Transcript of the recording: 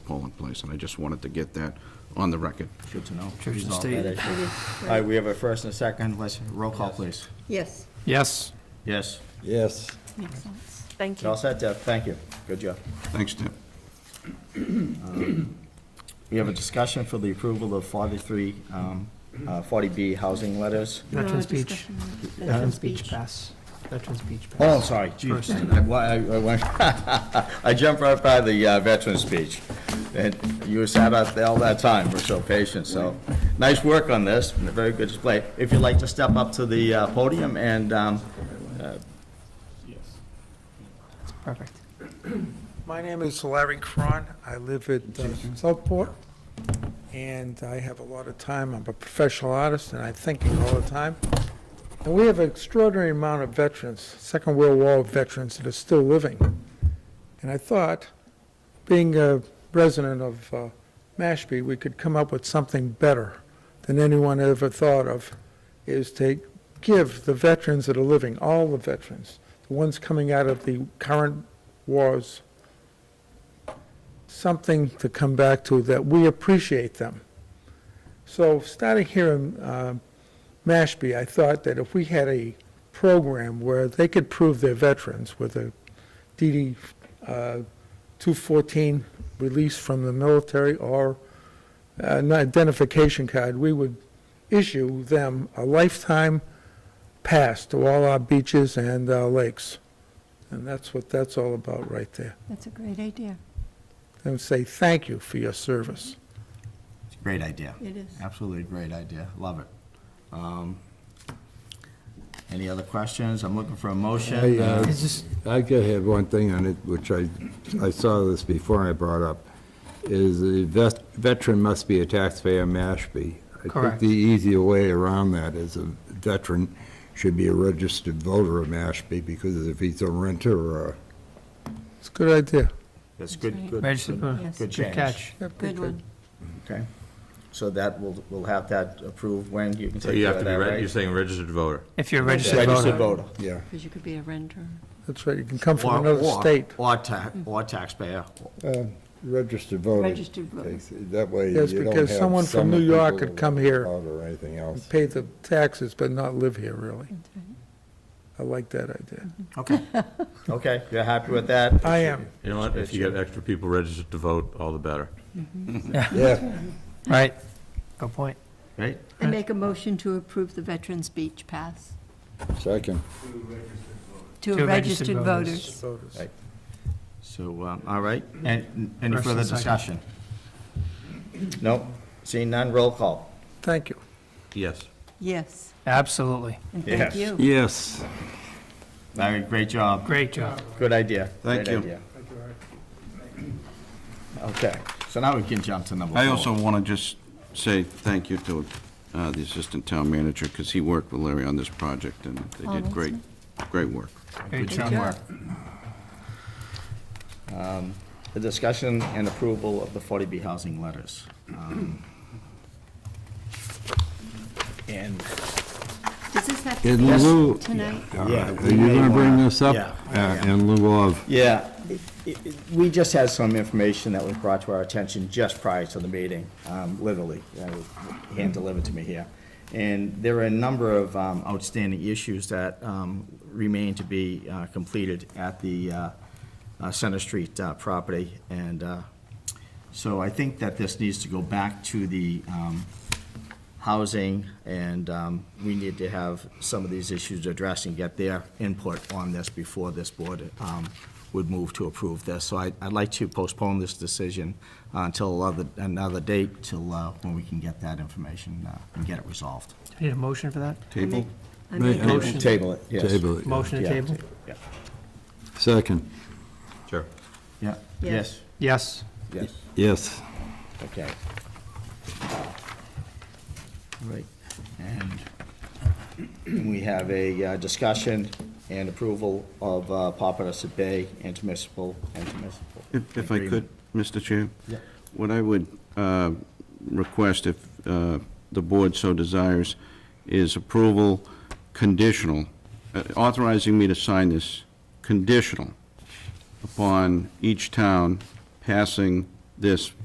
polling place, and I just wanted to get that on the record. Good to know. Church and Resolve state. that issue. It is, All right. right, we have a first and a second. Let's, roll call, please. Yes, Yes. Yes. Yes. makes sense. Thank You're All you. set, Deb? Thank you. Good job. Thanks, Deb. We have a discussion for the approval of 43, um, uh, 40B housing letters. Veterans Uh, Beach. discussion on Veterans Beach Pass. Veterans Beach Pass. Oh, I'm sorry, geez, First. I, I- I went- I jumped right by the uh, veteran speech, and you were sat out there all that time, we're so patient, so, nice work on this, and a very good display. If you'd like to step up to the uh, podium and, um, Oh. Perfect. My name is Larry Cron. I live at uh, Southport, and I have a lot of time. I'm a professional artist, and I'm thinking all the time. And we have an extraordinary amount of veterans, Second World War veterans, that are still living. And I thought, being a resident of uh, Mashpee, we could come up with something better than anyone ever thought of, is to give the veterans that are living, all the veterans, the ones coming out of the current wars, something to come back to that we appreciate them. So starting here in uh, Mashpee, I thought that if we had a program where they could prove they're veterans with a DD uh, 214 release from the military or an identification card, we would issue them a lifetime pass to all our beaches and our lakes. And that's what that's all about right there That's a great idea. and say thank you for your service. it's a great idea. It is. Absolutely a great idea, love it. Um, Any other questions? I'm looking for a I, motion. uh, It's just, I could have one thing on it, which I, I saw this before and I brought up, is the vet- veteran must be a taxpayer in Mashpee. I think Correct. the easier way around that is a veteran should be a registered voter of Mashpee, because if he's a renter or a It's a good idea. That's That's good, right. good. registered, Yes. good Good change. catch. That'd be Good one. Okay, so that, we'll, we'll have that approved when you can So take you care have of to be, that, reg- right? you're saying registered voter. If you're a registered Registered voter. voter. Yeah. Because you could be a renter. That's right, you can come Or- from another or- state. Or tax, or taxpayer. Uh, Registered voter. Registered voter. takes- That way Yes, you don't because have someone some from New York people could come here. out Or anything else. Pay the taxes, but not live here, really. That's right. I like that idea. Okay. Okay, you're happy with that? I am. You know what, if you get extra people registered to vote, all the better. Yeah, Right. Good point. Great, I make a motion to approve the Veterans Beach Pass second. to To registered registered voters. voters. Voters. Right. so, um, all right, and, any First further and discussion? second. No, seeing none, roll call. Thank you. Yes. Yes, Absolutely. and Yes. thank you. Yes. Larry, great job, Great job. good idea. Thank Great you. idea. Okay, so now we can jump to number four. I also want to just say thank you to uh, the Assistant Town Manager, because he worked with Larry on this project, and they Oh, did that's great, great work. Great Good job. teamwork. Um, The discussion and approval of the 40B housing letters. Um, And Does this have to In be lieu- tonight? All Yeah, right. we Are you may going to bring wanna- this up? yeah, Uh, In lieu of, Yeah, it- it- it- we just had some information that was brought to our attention just prior to the meeting, um, literally, uh, hand-delivered to me here. And there are a number of um, outstanding issues that um, remain to be uh, completed at the uh, uh, Center Street uh, property. And uh, so I think that this needs to go back to the um, housing, and um, we need to have some of these issues addressed and get their input on this before this board um, would move to approve this. So I- I'd like to postpone this decision uh, until another- another date, till uh, when we can get that information uh, and get it resolved. Do you Need a motion for that? Table? I make a Right. motion. Table it, yes. table it. Motion to Yeah. table? Yeah. Second. Sure. Yeah, yes, Yes. Yes. yes, Yes. okay. Right, and we have a uh, discussion and approval of uh, Papaneset Bay intermunicipal, intermunicipal. If if I could, agreement. Mr. Chair? Yeah. What I would uh, request, if uh, the board so desires, is approval conditional, uh, authorizing me to sign this conditional upon each town passing this